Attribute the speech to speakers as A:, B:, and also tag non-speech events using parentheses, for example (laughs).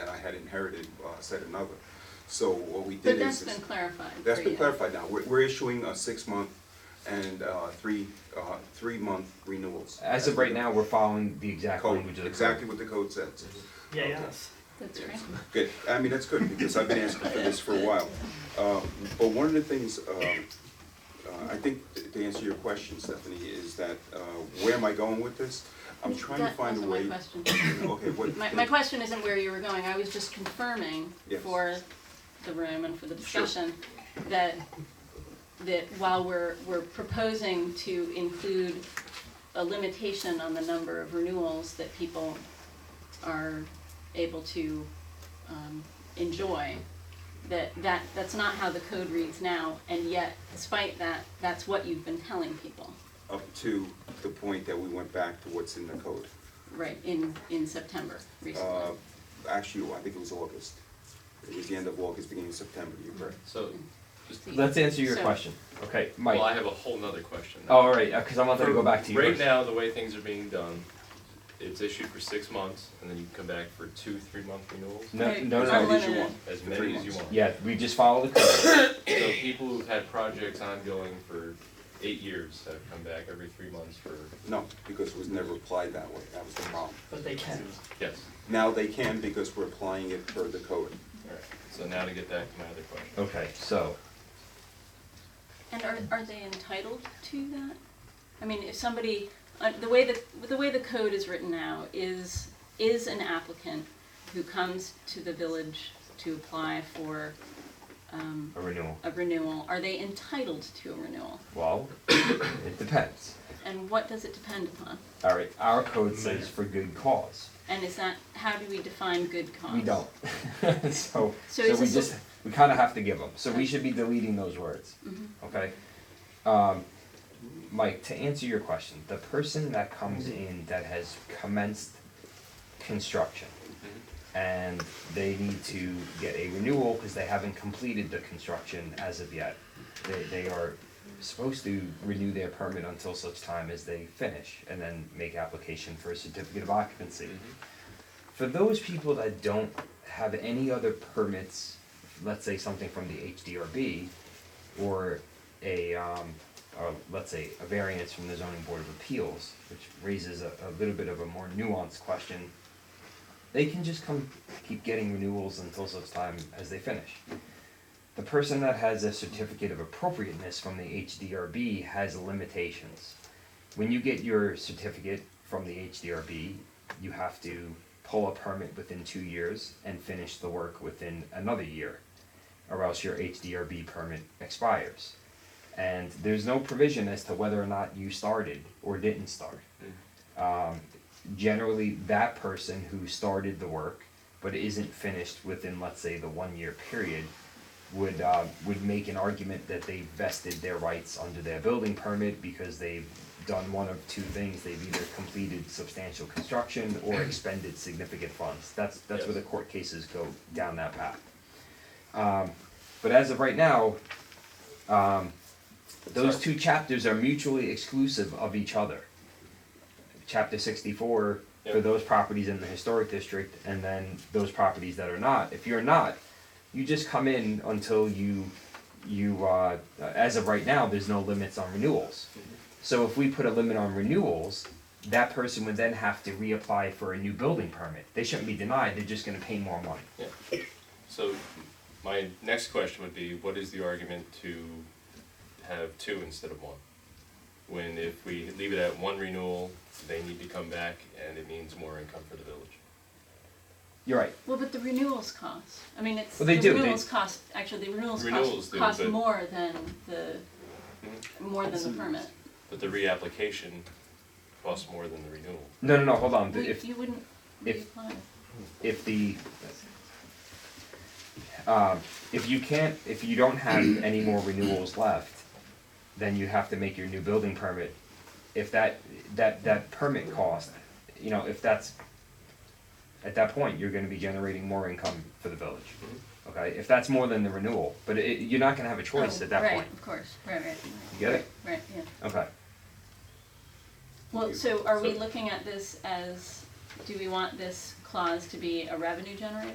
A: had inherited uh, said another. So what we did
B: But
A: is.
B: that's
A: is-
B: been clarified
A: That's
B: for
A: been
B: you.
A: clarified now. We're, we're issuing a six-month and uh, three, uh, three-month renewals.
C: As of right now, we're following the exact
A: Code,
C: language of the code.
A: exactly what the code says.
D: Yeah, yes.
B: That's right.
A: Good, I mean, that's good, because I've been asking for this for a while. Um, But one of the things, um, uh, I think, to answer your question, Stephanie, is that, uh, where am I going with this? I'm trying to
B: That
A: find a way.
B: wasn't my question.
A: Okay, what?
B: My, my question isn't where you were going, I was just confirming
A: Yes.
B: for the room and for the
A: Sure.
B: discussion that, that while we're, we're proposing to include a limitation on the number of renewals that people are able to, um, enjoy, that, that, that's not how the code reads now, and yet despite that, that's what you've been telling people,
A: Up to the point that we went back to what's in the code.
B: right, in, in September
A: Uh,
B: recently.
A: Actually, I think it was August. It was the end of August, beginning of September, you're correct.
E: So, just,
C: Let's answer your
B: So-
C: question, okay, Mike?
E: well, I have a whole nother question.
C: Oh, all right, because I'm not gonna go back to you.
E: Right now, the way things are being done, it's issued for six months, and then you can come back for two, three-month renewals,
C: No,
B: Right,
C: no,
A: As
B: it's
C: no.
A: many as you
B: unlimited.
A: want.
E: as
A: for three
E: many as you
A: months.
E: want.
C: Yeah, we just follow the code. (coughs)
E: So people who've had projects ongoing for eight years have come back every three months for,
A: No, because it was never applied that way, that was the problem.
D: But they can.
E: yes.
A: Now they can because we're applying it per the code.
E: All right. So now to get back to my other question.
C: Okay, so,
B: And are, are they entitled to that? I mean, if somebody, uh, the way that, the way the code is written now is, is an applicant who comes to the village to apply for, um,
C: a renewal,
B: a renewal, are they entitled to a renewal?
C: well, (coughs) it depends.
B: And what does it depend upon?
C: All right, our code says for good cause.
B: And is that, how do we define good cause?
C: We don't. (laughs) so
B: So
C: so,
B: is
C: we
B: this
C: just
B: a-
C: we kind of have to give them. So we should be deleting those words.
B: Mm-hmm.
C: Okay. Um, Mike, to answer your question, the person that comes
B: Mm-hmm.
C: in that has commenced construction
B: Mm-hmm.
C: and they need to get a renewal because they haven't completed the construction as of yet. They, they are supposed to renew their permit until such time as they finish and then make application for a certificate of occupancy.
B: Mm-hmm.
C: For those people that don't have any other permits, let's say something from the HDRB or a, um, or let's say a variance from the zoning board of appeals, which raises a, a little bit of a more nuanced question. They can just come, keep getting renewals until such time as they finish. The person that has a certificate of appropriateness from the HDRB has limitations when you get your certificate from the HDRB, you have to pull a permit within two years and finish the work within another year, or else your HDRB permit expires. And there's no provision as to whether or not you started or didn't start. Um, generally, that person who started the work but isn't finished within, let's say, the one year period would uh, would make an argument that they vested their rights under their building permit because they've done one of two things: they've either completed substantial construction or expended significant funds. That's that's where the
E: Yes.
C: court cases go down that path. Um, but as of right now, um, those
E: Sorry.
C: two chapters are mutually exclusive of each other. Chapter sixty-four for
E: Yep.
C: those properties in the historic district, and then those properties that are not. If you're not, you just come in until you, you, uh, as of right now, there's no limits on renewals. So if we put a limit on renewals, that person would then have to reapply for a new building permit. They shouldn't be denied, they're just gonna pay more money.
E: Yeah. So my next question would be, what is the argument to have two instead of one? When if we leave it at one renewal, they need to come back and it means more income for the village.
C: You're right,
B: Well, but the renewals cost, I mean, it's, the
C: Well, they do, they-
B: renewals cost, actually, the renewals
E: Renewals
B: cost,
E: do,
B: cost
E: but- Mm-hmm.
B: more than the, more than the permit.
E: But the reapplication costs more than the renewal.
C: no, no, no, hold on,
B: We-
C: if,
B: You wouldn't
C: if-
B: reapply.
C: if the, um, if you can't, if you don't have any more renewals left, then you have to make your new building permit. If that, that, that permit cost, you know, if that's, at that point, you're gonna be generating more income for the village. Okay, if that's more than the renewal, but it, you're not gonna have a choice
B: Oh,
C: at that
B: right,
C: point.
B: of course, right, right,
C: You get it?
B: right, yeah.
C: Okay.
B: Well, so are we
E: So-
B: looking at this as, do we want this clause to be a revenue generator?